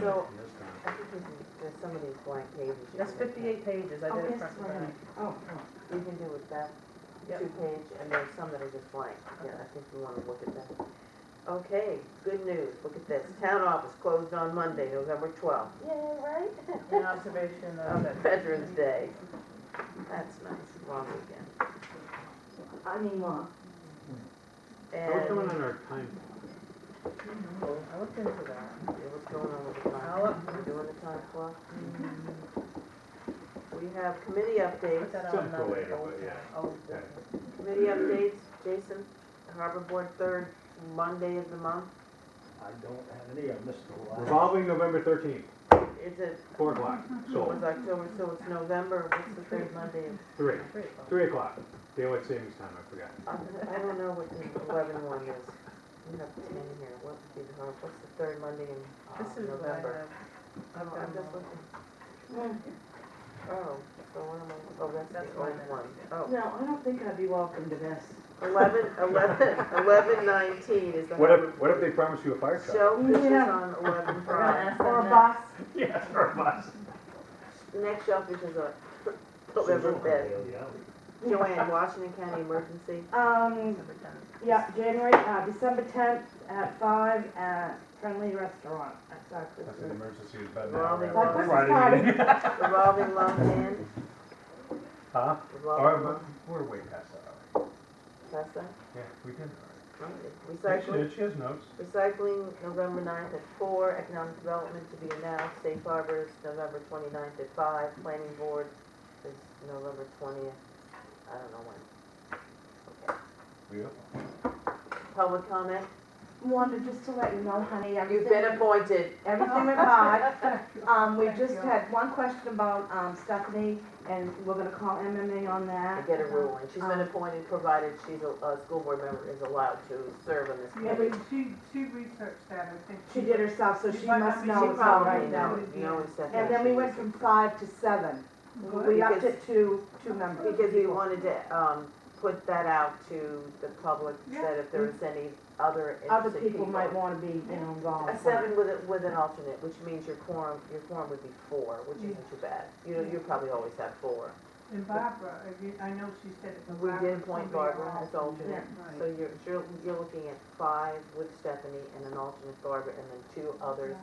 So- in this town. I think we can, there's some of these blank pages. you That's can look at. fifty-eight pages, I Oh, did it yes, front to right. back. Oh, We can do with that Yep. two page, and there's some that are just blank. Yeah, I think we wanna look at that. Okay, good news, look at this. Town office closed on Monday, November twelfth. Yay, right? An observation of Of it. Veterans Day. That's nice, long weekend. I mean, well, What's going And on our time? I looked into that. Yeah, what's going on with the I'll time? up- We're doing the time clock? We have committee updates. Put that Some on for later, another but old, yeah. Oh, old Yeah. business. Committee updates, Jason, Harbor Board, third Monday of the month. I don't have any, I missed the last. Revolving November thirteenth, It's a, four o'clock, it sold. was October, so it's November, what's the third Monday? of- Three, Three of them. three o'clock, daylight savings time, I forgot. I don't know what the eleven one is. We have ten here, what's the, har- what's the third Monday in uh, This is what I November? have. I'm I'm just looking. Oh, so one of my, oh, that's That's the old one. one. Oh, no, I don't think I'd be welcome to this. eleven, eleven, eleven nineteen is the. What Harbor- if, what if they promise you a fire truck? Shellfish is Yeah. on eleven We're gonna Friday. ask Or a them bus. Yes, or a bus. Next shellfish is on eleven Friday. Yeah. Joanne, Washington County Emergency. Um, next, December 10th. yeah, January, uh, December tenth at five at Friendly Restaurant at Sacred That's an Street. emergency, it's bad now. Revolving Like loan, Christmas Friday. party. revolving loan in, Huh? Or, revolving loan, Oh, but we're way past that already. that's that. Yeah, we did. already. She Recycling, did, she has notes. recycling, November ninth at four, economic development to be announced, safe harbors, November twenty-ninth at five, planning board is November twentieth, I don't know when. Okay. Beautiful. Public comment, Wanted just to let you know, honey, everything. you've been appointed. Everything went by. Um, we just had one question about, um, Stephanie, and we're gonna call MMA on to that. get a ruling. She's been Um, appointed, provided she's a, a school board member is allowed to serve on this Yeah, but committee. she, she researched that, I think. She did herself, so she must She know it's all probably right now. knows, knows that. And then we went from five to seven. We upped it to two members. Because we wanted to, um, put that out to the public, that if there was any other Other interested people. people might wanna be, you know, involved. A seven with, a- with an alternate, which means your quorum, your quorum would be four, which isn't too bad. You know, you probably always have four. And Barbara, I mean, I know she said it. but We did Barbara's appoint somebody Barbara else. as alternate. So Right. you're, you're, you're looking at five with Stephanie and an alternate Barbara and then two others.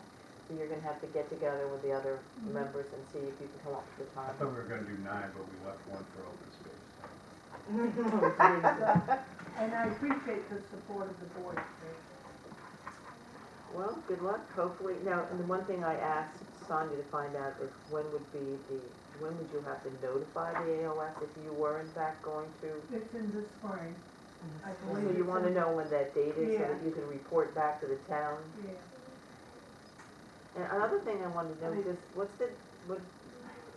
So you're gonna have to get together with the other Mm-hmm. Mhm. members and see if you can come up with a I time. thought we were gonna do nine, but we left one for open space. And I appreciate the support of the board. Well, good luck, hopefully. Now, and the one thing I asked Sonia to find out is when would be the, when would you have to notify the AOS if you were in fact going to? It's in the spring, I So believe. you it's wanna in- know when that date is so that Yeah. you can report back to the town. Yeah. And another thing I wanted to know is, what's the, what,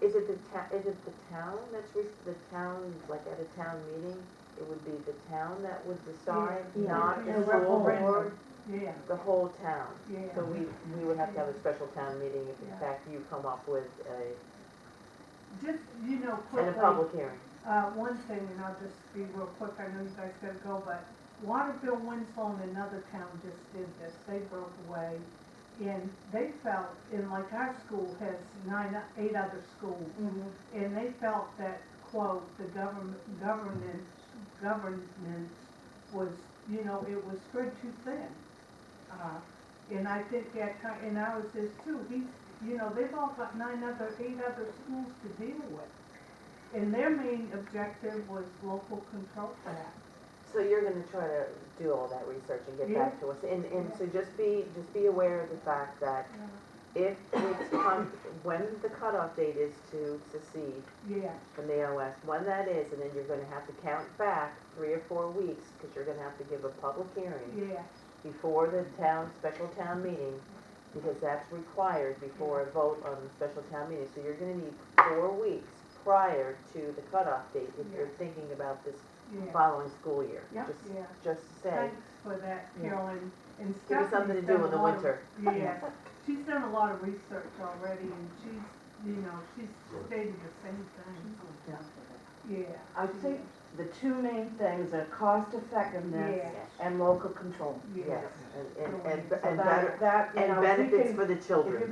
is it the ta, is it the town that's, re- the town, like at a town meeting? It would be the town that would decide, Yeah. not Yeah. the school Yeah. board, Yeah, the whole town. yeah. So we, we would have to have a special town meeting if in Yeah. fact you come up with a Just, you know, And quickly. a public hearing. Uh, one thing, and I'll just be real quick, I know you guys gotta go, but Waterville, Winslow, and another town just did this, they broke away. And they felt, and like our school has nine, eight other schools, Mhm. and they felt that, quote, the government, governance, governance was, you know, it was spread too thin. Uh, And I think that, ki- and I was this too, he's, you know, they've all got nine other, eight other schools to deal with. And their main objective was local control uh, for that. So you're gonna try to do all that research and get back to us, and, and so just be, just be aware of the fact that if it's, come- when the cutoff date is to secede Yeah, from the OS, when that is, and then you're gonna have to count back three or four weeks, cause you're gonna have to give a public hearing yeah, before the town, special town meeting, because that's required before a vote on the special town meeting, so you're gonna need four weeks prior to the cutoff date if you're thinking about this yeah, following school year. Yeah. Just, yeah. just say, Thanks for that, Yeah. Carolyn. And give us something to Stephanie's do done in the a lot of- winter. Yes, she's done a lot of research already, and she's, you know, she's stated the same thing. Yeah. I think the two main things are cost effectiveness Yeah. and local control. Yes, Yes. and, and, and, So and that- better, That, you and know, if we benefits can- for the if children. you